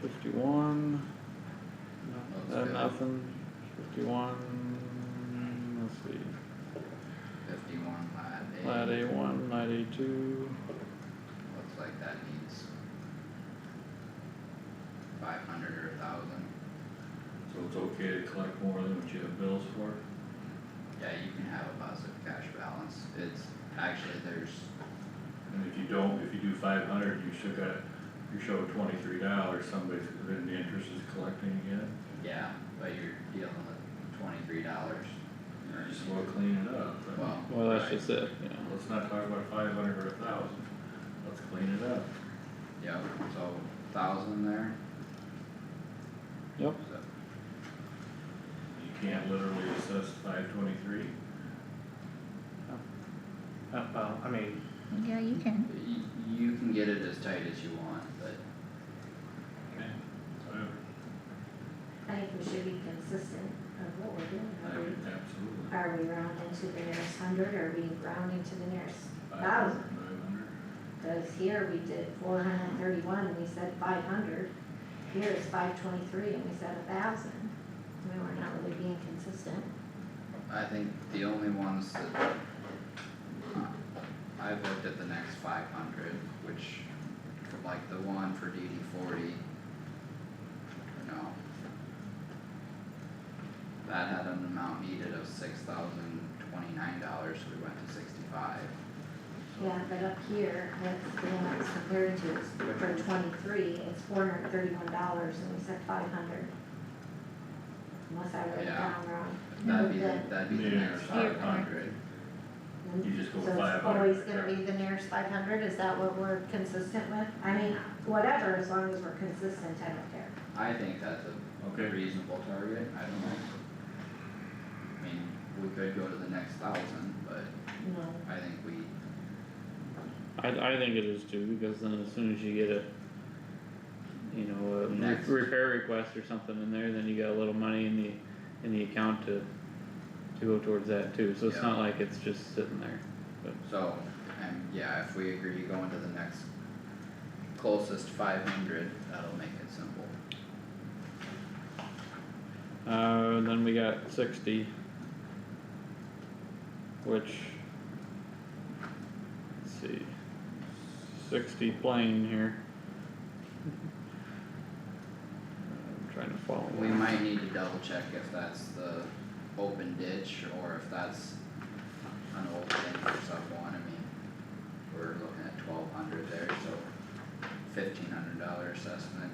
fifty-one. That's Uh, good. nothing, fifty-one, let's see, Fifty-one lat A. lat A one, lat A two, Looks like that needs five hundred or a thousand. So it's okay to collect more than what you have bills for? Yeah, you can have a positive cash balance. It's, actually, there's, And if you don't, if you do five hundred, you still got, you show twenty-three dollars, somebody's, then the interest is collecting again. yeah, but you're dealing with twenty-three dollars. You just wanna clean it up, but Well, well, that's right, just it, yeah. let's not talk about five hundred or a thousand, let's clean it up. Yep, so thousand there. Yep. So, You can't literally assess five twenty-three. Uh, well, I mean, Yeah, you can. You, you can get it as tight as you want, but I think we should be consistent of what we're doing. I Are would, we- absolutely. Are we rounding to the nearest hundred, or are we rounding to the nearest? 500, 500. Cause here we did four hundred and thirty-one, and we said five hundred, here it's five twenty-three, and we said a thousand. We were not really being consistent. I think the only ones that. I've looked at the next five hundred, which, like the one for DD forty. No. That had an amount needed of six thousand twenty-nine dollars, so we went to sixty-five. Yeah, but up here, that's the one it's compared to, it's for twenty-three, it's four hundred and thirty-one dollars, and we said five hundred. Unless I wrote it Yeah. down wrong. That'd be, No, the- the- that'd be the Yeah, next here. five hundred. And You just go So five it's hundred. always gonna be the nearest five hundred, is that what we're consistent with? I mean, whatever, as long as we're consistent, I don't care. I think that's a Okay, reasonable target, I don't know. I mean, we could go to the next thousand, but No. I think we, I, I think it is too, because then as soon as you get a, you know, a Next. re- repair request or something in there, then you got a little money in the, in the account to, to go towards that too, so it's Yeah. not like it's just sitting there. so, and yeah, if we agree going to the next closest five hundred, that'll make it simple. Uh, then we got sixty. Which. Let's see. Sixty plane here. I'm trying to follow. We along. might need to double check if that's the open ditch or if that's an old thing for someone, I mean, we're looking at twelve hundred there, so fifteen hundred dollar assessment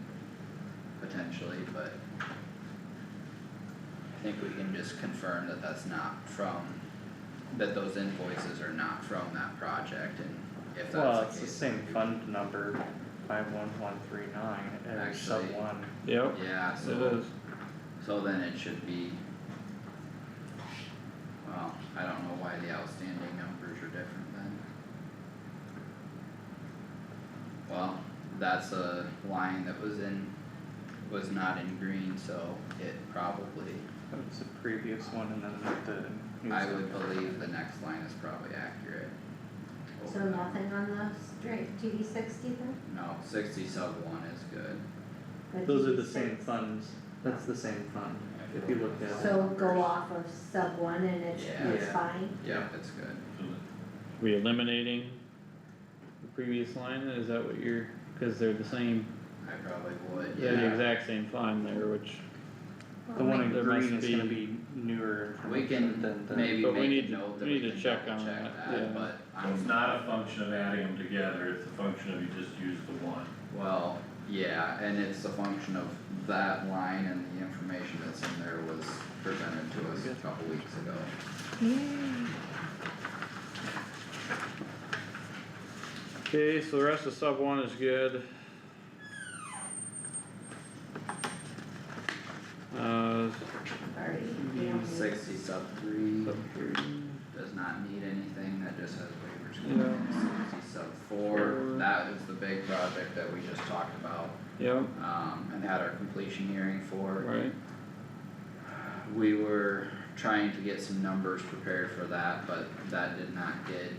potentially, but I think we can just confirm that that's not from, that those invoices are not from that project and if that's the case. well, it's the same then we- fund number, five one one three nine, or sub Actually- one. Yep, Yeah, it so. is. So then it should be. Well, I don't know why the outstanding numbers are different then. Well, that's a line that was in, was not in green, so it probably, It's the previous one and then the. new I sub- would believe the next line is probably accurate. So nothing on the straight DD sixty then? No, sixty sub one is good. But Those are DD the same six- funds, that's the same fund, if you look at it. So go off of sub one and it's, Yeah. it's Yeah. fine, Yep, it's good. so the We eliminating the previous line, is that what you're, cause they're the same, I probably would, they're the yeah. exact same fund there, which, The one in There must green is gonna be- be newer We information can than the. maybe But we make need a to- note that we we need to can check double on check that, yeah. that, but So I'm It's not a function of adding them together, it's a function of you just use the one. Well, yeah, and it's a function of that line and the information that's in there was presented to us a couple weeks ago. okay, so the rest of sub one is good. Uh, already, we don't need- Sixty sub three sub three. does not need anything, that just has waivers. Yeah. committed. Sixty sub four, Four. that is the big project that we just talked about, Yep, um, and had our completion hearing for. right, We were trying to get um, some numbers prepared for that, but that did not get